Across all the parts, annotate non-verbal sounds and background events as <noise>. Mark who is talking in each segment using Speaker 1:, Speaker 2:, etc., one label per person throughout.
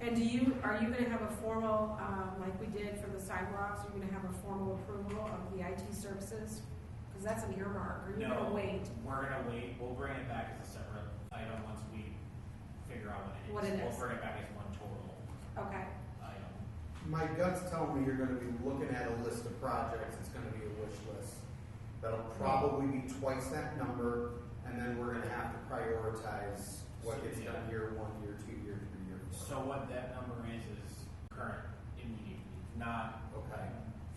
Speaker 1: And do you, are you gonna have a formal, um, like we did for the sidewalks, are you gonna have a formal approval of the IT services? Because that's an earmark, are you
Speaker 2: No.
Speaker 1: gonna wait?
Speaker 2: We're gonna wait, we'll bring it back as a separate item once we figure out what
Speaker 1: What
Speaker 2: it
Speaker 1: it
Speaker 2: is.
Speaker 1: is.
Speaker 2: We'll bring it back as one total
Speaker 1: Okay,
Speaker 2: item.
Speaker 3: My gut's telling me you're gonna be looking at a list of projects, it's gonna be a wish list. That'll probably be twice that number, and then we're gonna have to prioritize what gets done year one, year two, year three, year four.
Speaker 2: So what that number is, is current immediately, not
Speaker 3: Okay,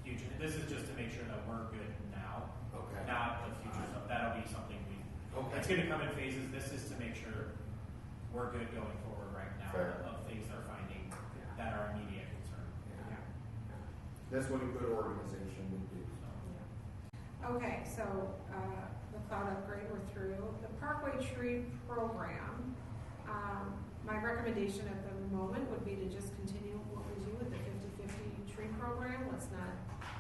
Speaker 2: future. This is just to make sure that we're good now,
Speaker 3: okay,
Speaker 2: not the future stuff. That'll be something we, it's
Speaker 3: okay,
Speaker 2: gonna come in phases. This is to make sure we're good going forward right now
Speaker 3: Fair.
Speaker 2: of things they're finding
Speaker 3: Yeah.
Speaker 2: that are immediate concern.
Speaker 1: yeah.
Speaker 3: Yeah. That's what a good organization would do.
Speaker 1: Okay, so, uh, the cloud upgrade we're through, the Parkway Tree Program. Um, my recommendation at the moment would be to just continue what we do with the fifty-fifty tree program, let's not,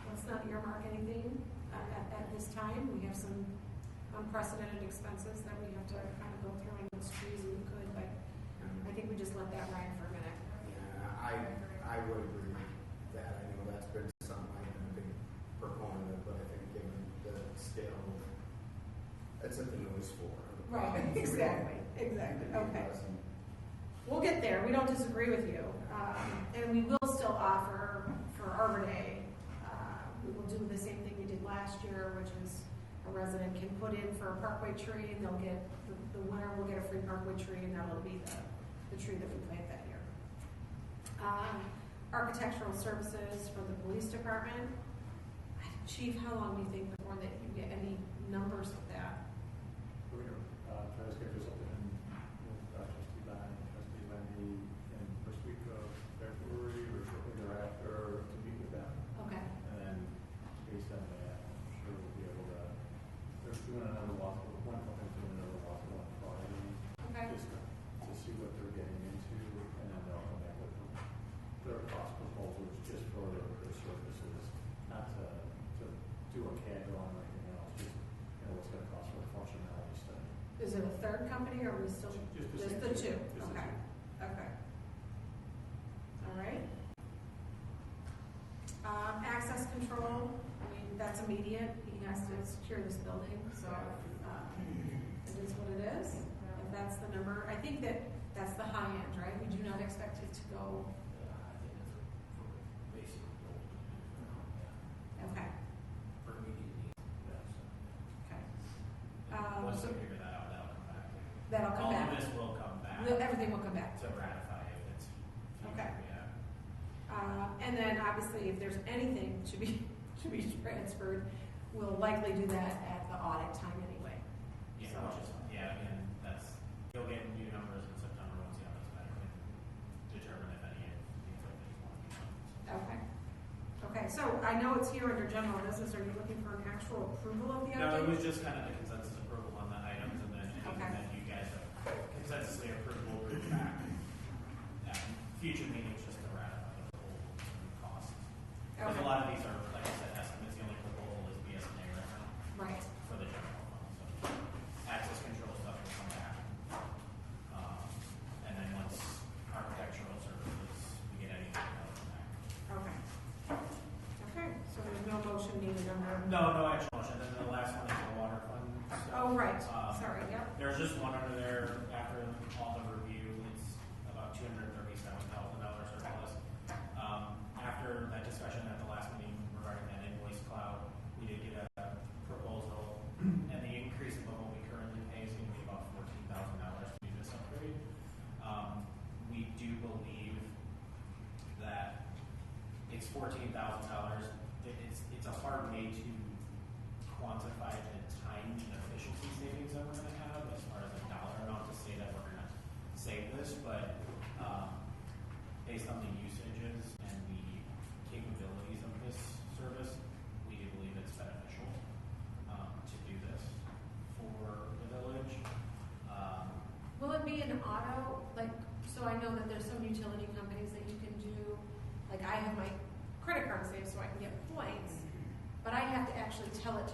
Speaker 1: let's not earmark anything uh, at, at this time, we have some unprecedented expenses that we have to kind of go through and it's trees and could, but I think we just let that ride for a minute.
Speaker 3: Yeah, I, I would agree with that, I know that's been something I've been a big proponent of, but I think given the scale, that's what the noise for.
Speaker 1: <laughs>
Speaker 3: <laughs>
Speaker 1: exactly, okay.
Speaker 3: Awesome.
Speaker 1: We'll get there, we don't disagree with you. Um, And we will still offer for Arbor Day, uh, we will do the same thing we did last year, which is a resident can put in for a parkway tree and they'll get, the- the winner will get a free parkway tree and that'll be the, the tree that we plant that year. Um, Architectural services for the police department. Chief, how long do you think before that you get any numbers of that?
Speaker 4: We're gonna, uh, try to schedule something with uh, trustee Bond, trustee Lenny, in first week of February or shortly thereafter to meet with them.
Speaker 1: Okay,
Speaker 4: And then based on that, I'm sure we'll be able to, they're doing another walk, one company's doing another walk on Friday,
Speaker 1: okay.
Speaker 4: just to to see what they're getting into, and then they'll come back with their cost proposals just for their services, not to, to do a CAD drawing or anything else, just, you know, what's gonna cost for a functionality study.
Speaker 1: Is it a third company or are we still?
Speaker 4: Just the
Speaker 1: Just
Speaker 4: same
Speaker 1: the two,
Speaker 4: Just the
Speaker 1: okay,
Speaker 4: two.
Speaker 1: okay. All right. Um, access control, I mean, that's immediate, he has to secure this building, so, um, it is what it is. If that's the number, I think that, that's the high end, right? We do not expect it to go,
Speaker 5: I think that's a, for basic,
Speaker 1: okay,
Speaker 5: for immediate needs.
Speaker 1: okay. Um,
Speaker 2: Once
Speaker 1: so
Speaker 2: we figure that out, that'll come back.
Speaker 1: that'll come
Speaker 2: All of
Speaker 1: back.
Speaker 2: this will come back
Speaker 1: We'll- Everything will come back.
Speaker 2: to ratify if it's. future,
Speaker 1: Okay.
Speaker 2: Yeah.
Speaker 1: Uh, and then obviously, if there's anything to be, <laughs> to be transferred, we'll likely do that at the audit time anyway.
Speaker 2: Yeah,
Speaker 1: So-
Speaker 2: which is, yeah, again, that's, you'll get new numbers in September once you have this better and determine if any of these are things want to be done.
Speaker 1: Okay. Okay, so I know it's here under general business, are you looking for an actual approval of the
Speaker 2: No, it
Speaker 1: update?
Speaker 2: was just kind of the consensus approval on the items and then, and
Speaker 1: Okay.
Speaker 2: then you guys have consensusly approved, we'll bring it back. at Future meetings just to ratify the whole cost. Because a
Speaker 1: Okay,
Speaker 2: lot of these are, like I said, estimates, the only proposal is BSNA right now
Speaker 1: right,
Speaker 2: for the general fund, so access control stuff will come back. Um, And then once architectural services, we get anything else from that.
Speaker 1: okay. Okay, so there's no motion needed on that?
Speaker 2: No, no action motion, then the last one is the water fund stuff.
Speaker 1: Oh, right,
Speaker 2: Um,
Speaker 1: sorry, yep,
Speaker 2: There's just one under there after all the review, it's about two hundred and thirty-seven thousand dollars surplus. Um, after that discussion at the last meeting regarding that invoice cloud, we did get a proposal, and the increase above what we currently pay is gonna be about fourteen thousand dollars to do this upgrade. Um, we do believe that it's fourteen thousand dollars, it's, it's a hard way to quantify the time and efficiency savings that we're gonna have as far as a dollar amount to say that we're gonna save this, but, um, based on the usages and the capabilities of this service, we do believe it's beneficial, um, to do this for the village. Um,
Speaker 1: will it be an auto, like, so I know that there's some utility companies that you can do, like, I have my credit card saved so I can get points, but I have to actually tell it to